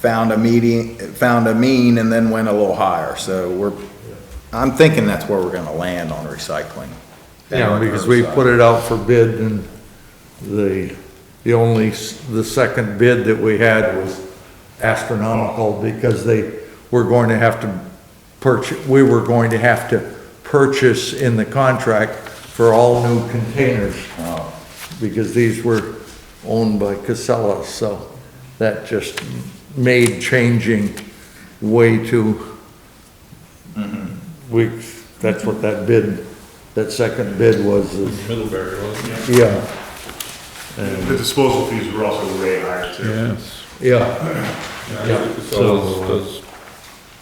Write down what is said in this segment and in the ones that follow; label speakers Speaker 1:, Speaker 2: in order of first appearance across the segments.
Speaker 1: found a median, found a mean and then went a little higher, so we're, I'm thinking that's where we're gonna land on recycling.
Speaker 2: Yeah, because we put it out for bid and the, the only, s- the second bid that we had was astronomical because they were going to have to purchase, we were going to have to purchase in the contract for all new containers. Because these were owned by Casella, so that just made changing way too we, that's what that bid, that second bid was, is-
Speaker 3: Middlebury, wasn't it?
Speaker 2: yeah,
Speaker 4: The disposal fees were also way higher too.
Speaker 3: Yes.
Speaker 2: yeah, Yeah.
Speaker 3: So, does,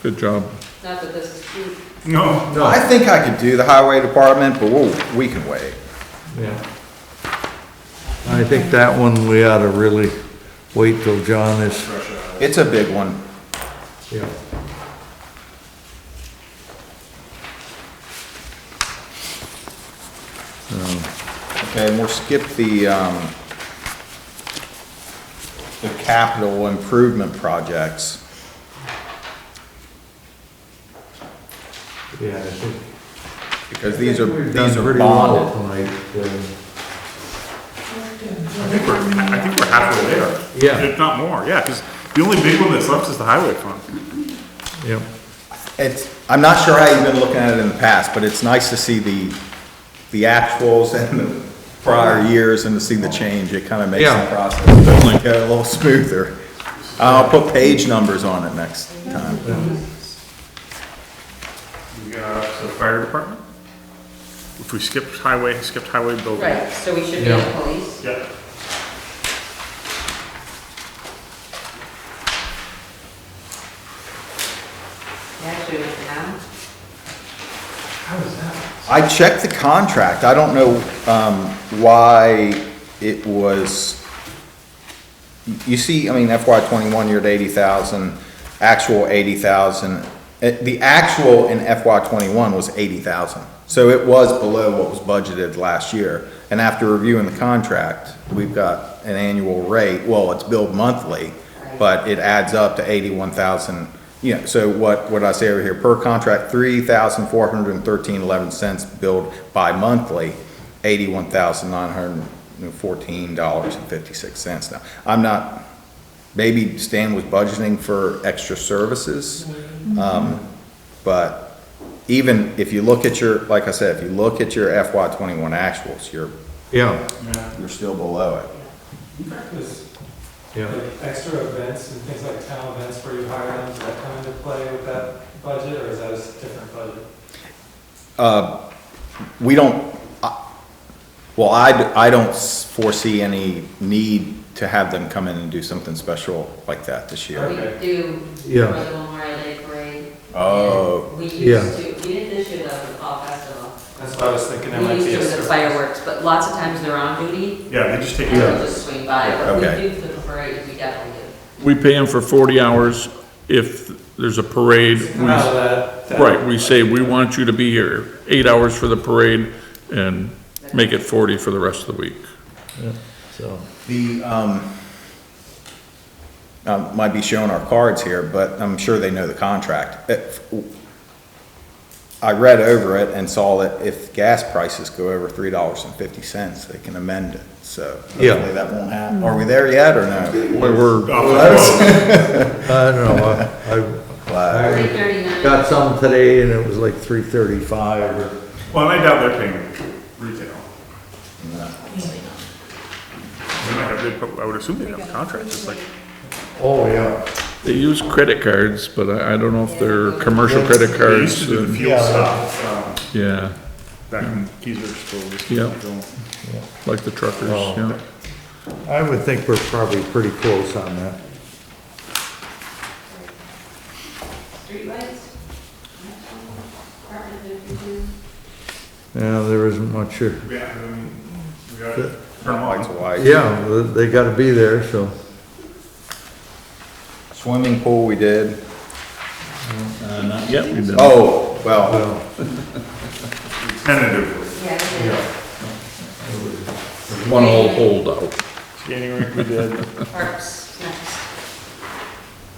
Speaker 3: good job.
Speaker 5: Not that this is huge,
Speaker 4: No,
Speaker 1: I think I could do the highway department, but we'll, we can wait.
Speaker 2: yeah. I think that one we ought to really wait till John is,
Speaker 4: fresh out.
Speaker 1: It's a big one.
Speaker 2: yeah.
Speaker 1: Okay, and we'll skip the, um, the capital improvement projects.
Speaker 2: Yeah, I think.
Speaker 1: Because these are,
Speaker 2: I think we've done
Speaker 1: these are
Speaker 2: pretty
Speaker 1: bonded.
Speaker 2: well tonight, um,
Speaker 4: I think we're, I think we're halfway there.
Speaker 2: Yeah.
Speaker 4: If not more, yeah, because the only big one that's left is the highway fund.
Speaker 2: Yeah,
Speaker 1: It's, I'm not sure how you've been looking at it in the past, but it's nice to see the, the actuals and the prior years and to see the change. It kind of makes the
Speaker 2: Yeah.
Speaker 1: process go a little smoother. I'll put page numbers on it next time.
Speaker 4: We got the fire department. If we skipped highway, skipped highway building.
Speaker 5: right, so we should be on
Speaker 2: Yeah.
Speaker 5: police.
Speaker 4: Yeah.
Speaker 5: Actually, now,
Speaker 1: I checked the contract. I don't know, um, why it was, you see, I mean, FY twenty-one, you're at eighty thousand, actual eighty thousand. Uh, The actual in FY twenty-one was eighty thousand, so it was below what was budgeted last year. And after reviewing the contract, we've got an annual rate, well, it's billed monthly, but it adds up to eighty-one thousand, you know, so what, what I say over here, per contract, three thousand four hundred and thirteen eleven cents billed bi-monthly, eighty-one thousand nine hundred and fourteen dollars and fifty-six cents now. I'm not, maybe Stan was budgeting for extra services. Um, but even if you look at your, like I said, if you look at your FY twenty-one actuals, you're,
Speaker 2: yeah,
Speaker 1: you're still below it.
Speaker 6: There's
Speaker 2: yeah.
Speaker 6: like extra events and things like town events where you hire them, does that come into play with that budget, or is that a s- different budget?
Speaker 1: We don't, I- well, I, d- I don't s- foresee any need to have them come in and do something special like that this year.
Speaker 5: we
Speaker 6: Okay.
Speaker 5: do
Speaker 2: Yeah.
Speaker 5: for the Memorial Day parade.
Speaker 1: Oh.
Speaker 5: We
Speaker 2: Yeah.
Speaker 5: used to, we did this year though, the fall festival.
Speaker 6: That's what I was thinking, that
Speaker 5: We
Speaker 6: might
Speaker 5: used
Speaker 6: be
Speaker 5: to
Speaker 6: a
Speaker 5: with the
Speaker 6: surplus.
Speaker 5: fireworks, but lots of times they're on duty,
Speaker 4: Yeah, they just take.
Speaker 5: and they'll just swing by, but
Speaker 1: Okay.
Speaker 5: we do for the parade, we definitely do.
Speaker 3: We pay him for forty hours if there's a parade.
Speaker 6: Come
Speaker 3: We,
Speaker 6: out of that- that-
Speaker 3: right, we say, we want you to be here, eight hours for the parade and make it forty for the rest of the week.
Speaker 2: So,
Speaker 1: The, um, um, might be showing our cards here, but I'm sure they know the contract. If- I read over it and saw that if gas prices go over three dollars and fifty cents, they can amend it, so. hopefully
Speaker 2: Yeah.
Speaker 1: That won't happen. Are we there yet or no?
Speaker 3: But we're,
Speaker 2: I don't know, I,
Speaker 1: Wow.
Speaker 5: Three
Speaker 2: I
Speaker 5: thirty-nine.
Speaker 2: got some today and it was like three thirty-five or.
Speaker 4: Well, and I doubt they're paying retail. They might have, they prob- I would assume they have a contract, just like,
Speaker 2: Oh, yeah.
Speaker 3: they use credit cards, but I, I don't know if they're commercial credit
Speaker 4: they used to do
Speaker 3: cards.
Speaker 4: the
Speaker 3: and-
Speaker 4: fuel stuff, um,
Speaker 3: Yeah,
Speaker 4: back in Keezer School. just keep
Speaker 3: Yeah.
Speaker 4: it going.
Speaker 3: like the truckers,
Speaker 2: Oh.
Speaker 3: yeah.
Speaker 2: I would think we're probably pretty close on that.
Speaker 5: Streetlights? Apartment if you do.
Speaker 2: Yeah, there isn't much here.
Speaker 4: Yeah, I mean, we gotta turn them
Speaker 1: Lights
Speaker 4: on.
Speaker 1: are white.
Speaker 2: Yeah, they gotta be there, so.
Speaker 1: Swimming pool we did.
Speaker 4: Uh,
Speaker 3: Yep. we did.
Speaker 1: Oh, well,
Speaker 4: Tentatively.
Speaker 5: Yeah, we do.
Speaker 3: One old holdout.
Speaker 4: Skating rink we did.
Speaker 5: parks, snacks.